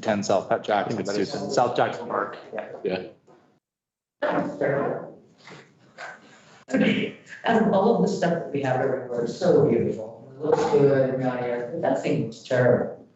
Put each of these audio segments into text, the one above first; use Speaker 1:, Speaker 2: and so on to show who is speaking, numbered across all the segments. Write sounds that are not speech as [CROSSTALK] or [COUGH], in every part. Speaker 1: ten South Jackson,
Speaker 2: it's
Speaker 1: but it's
Speaker 2: two-
Speaker 1: South Jackson Park.
Speaker 3: And all of the stuff that we have everywhere is so beautiful, it looks good and not yet, but that thing looks terrible.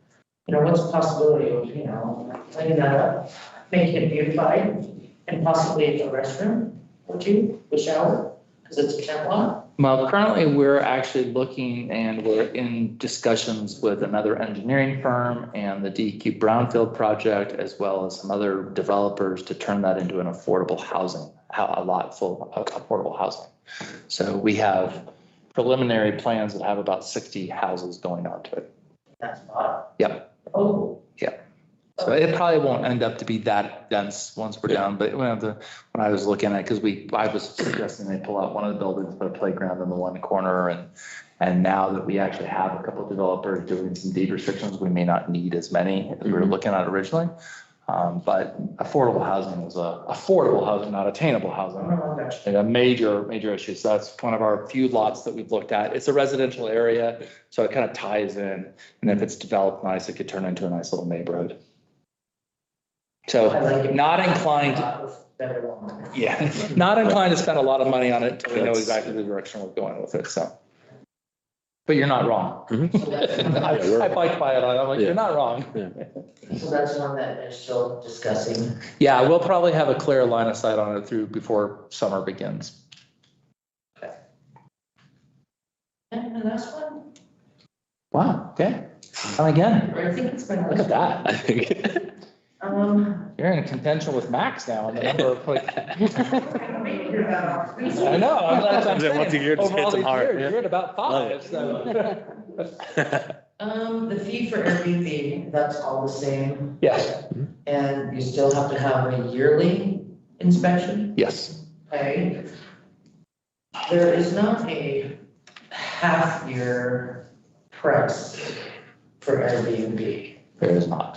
Speaker 3: You know, what's the possibility of, you know, cleaning that up, making it beautified, and possibly a restroom or two, a shower, because it's a camp lot.
Speaker 1: Well, currently, we're actually looking and we're in discussions with another engineering firm and the DEQ Brownfield project, as well as some other developers to turn that into an affordable housing, ho- a lot full of affordable housing. So we have preliminary plans that have about sixty houses going onto it.
Speaker 3: That's not.
Speaker 1: Yep.
Speaker 3: Oh.
Speaker 1: Yep. So it probably won't end up to be that dense once we're done, but when the, when I was looking at, because we, I was suggesting they pull out one of the buildings, put a playground in the one corner and, and now that we actually have a couple of developers doing some deed restrictions, we may not need as many as we were
Speaker 2: Mhm.
Speaker 1: looking at originally. Um, but affordable housing is a, affordable housing, not attainable
Speaker 3: I
Speaker 1: housing
Speaker 3: don't know, I got you.
Speaker 1: and a major, major issue. So that's one of our few lots that we've looked at. It's a residential area, so it kind of ties in. And if it's developed nice, it could turn into a nice little neighborhood. So [LAUGHS]
Speaker 3: I like it.
Speaker 1: not inclined,
Speaker 3: Lot with Better one.
Speaker 1: yeah, not inclined to spend a lot of money on it until we know
Speaker 2: That's-
Speaker 1: exactly the direction we're going with it, so. But you're not wrong.
Speaker 3: So that's-
Speaker 1: I I biked by it, I'm like,
Speaker 2: Yeah.
Speaker 1: you're not wrong.
Speaker 3: so that's one that they're still discussing.
Speaker 1: Yeah, we'll probably have a clear line of sight on it through before summer begins.
Speaker 3: And the last one,
Speaker 1: Wow, okay. And again,
Speaker 3: I think it's been.
Speaker 1: look at that.
Speaker 2: I think. [LAUGHS]
Speaker 3: Um.
Speaker 1: You're in contention with Max now on the number of like. [LAUGHS] I know. I'm- that's
Speaker 2: [LAUGHS]
Speaker 1: what I'm
Speaker 2: Then once
Speaker 1: saying.
Speaker 2: a year, it just
Speaker 1: Over all
Speaker 2: hits 'em
Speaker 1: these
Speaker 2: hard,
Speaker 1: years,
Speaker 2: yeah.
Speaker 1: You're at about
Speaker 2: Love it.
Speaker 1: five, so.
Speaker 2: [LAUGHS]
Speaker 3: Um, the fee for everything, that's all the same,
Speaker 1: Yes,
Speaker 3: and you still have to have a yearly inspection,
Speaker 1: yes.
Speaker 3: okay? There is not a half-year price for Airbnb.
Speaker 1: There is not.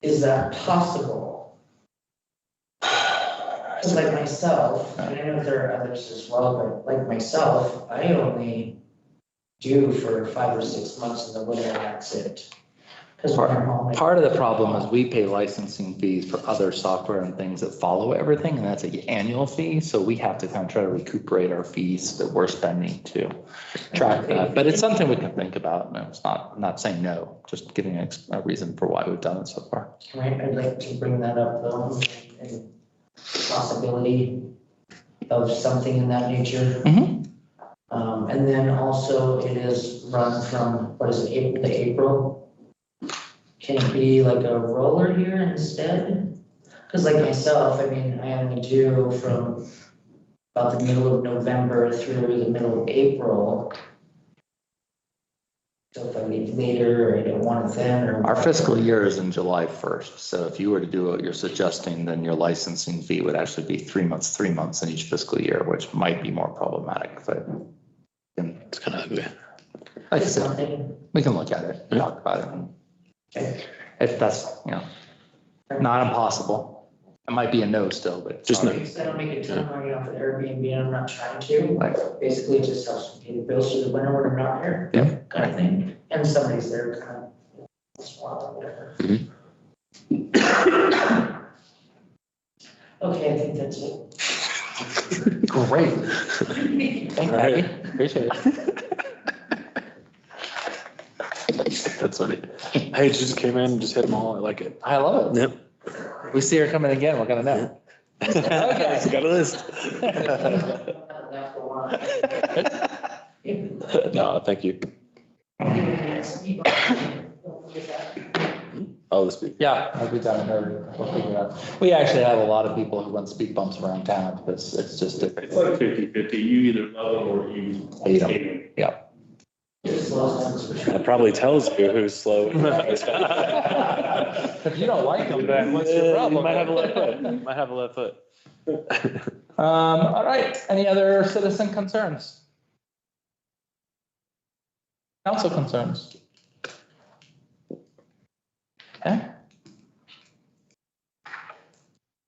Speaker 3: Is that possible? 'Cause like myself, and I know there are others as well, but like myself, I only do for five or six months in the winter, and that's it. Because when I'm home. I-
Speaker 1: Part of the problem is we pay licensing fees for other software and things that follow everything, and that's an annual fee. So we have to kind of try to recuperate our fees that we're spending to track that. But it's something we can think about. and it's not, not saying no, just giving a a reason for why we've done it so far.
Speaker 3: Right, I'd like to bring that up though, and possibility of something in that nature.
Speaker 1: Mhm.
Speaker 3: Um, and then also it is run from, what is it, April to April? Can it be like a roller year instead? Cause like myself, I mean, I only do from about the middle of November through the middle of April. So if I leave later or I don't want it then or.
Speaker 1: Our fiscal year is in July first, so if you were to do what you're suggesting, then your licensing fee would actually be three months, three months in each fiscal year, which might be more problematic, but. and
Speaker 2: It's kind of ugly.
Speaker 1: Like I
Speaker 3: Just
Speaker 1: said,
Speaker 3: something.
Speaker 1: we can look at it, and talk about it. and If that's, you know, not impossible. It might be a no still, but. it's
Speaker 2: Just
Speaker 1: not-
Speaker 3: Because I don't make a ton of money off of Airbnb and I'm not trying to,
Speaker 1: Like,
Speaker 3: basically it just helps me pay the bills through the winter when I'm not here.
Speaker 1: Yeah.
Speaker 3: Kind of thing, and somebody's there kind of swallowing whatever. [COUGHS]
Speaker 2: Mhm.
Speaker 3: Okay, I think that's it.
Speaker 1: Great. [LAUGHS] Thank you, Abby. Appreciate it. [LAUGHS]
Speaker 2: That's funny. Hey, she just came in, just hit them all. I like it.
Speaker 1: I love it.
Speaker 2: Yep.
Speaker 1: We see her coming again, we're gonna know.
Speaker 2: It's [LAUGHS] Got a list.
Speaker 3: That's the one.
Speaker 1: [LAUGHS]
Speaker 3: Even
Speaker 2: No, thank you.
Speaker 3: if it's- Don't forget that.
Speaker 2: I'll speak.
Speaker 1: Yeah, I'll be down there. We'll figure it out. We actually have a lot of people who run speed bumps around town because it's just,
Speaker 4: It's like fifty fifty, you either love it or you.
Speaker 1: You don't.
Speaker 4: hate it.
Speaker 1: yeah.
Speaker 3: Just lost it.
Speaker 2: That probably tells you who's slow.
Speaker 1: [LAUGHS] [LAUGHS] If you don't like them, then what's your
Speaker 2: Yeah, You
Speaker 1: problem?
Speaker 2: might have a left foot. You Might have a left foot. [LAUGHS]
Speaker 1: Um, all right, any other citizen concerns? Council concerns? Okay.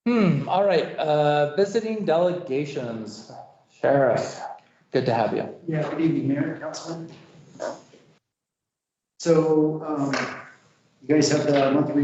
Speaker 1: Hmm, all right, uh, visiting delegations, Sheriff, good to have you.
Speaker 5: Yeah, good evening, Mayor, Councilman. So, um, you guys have the monthly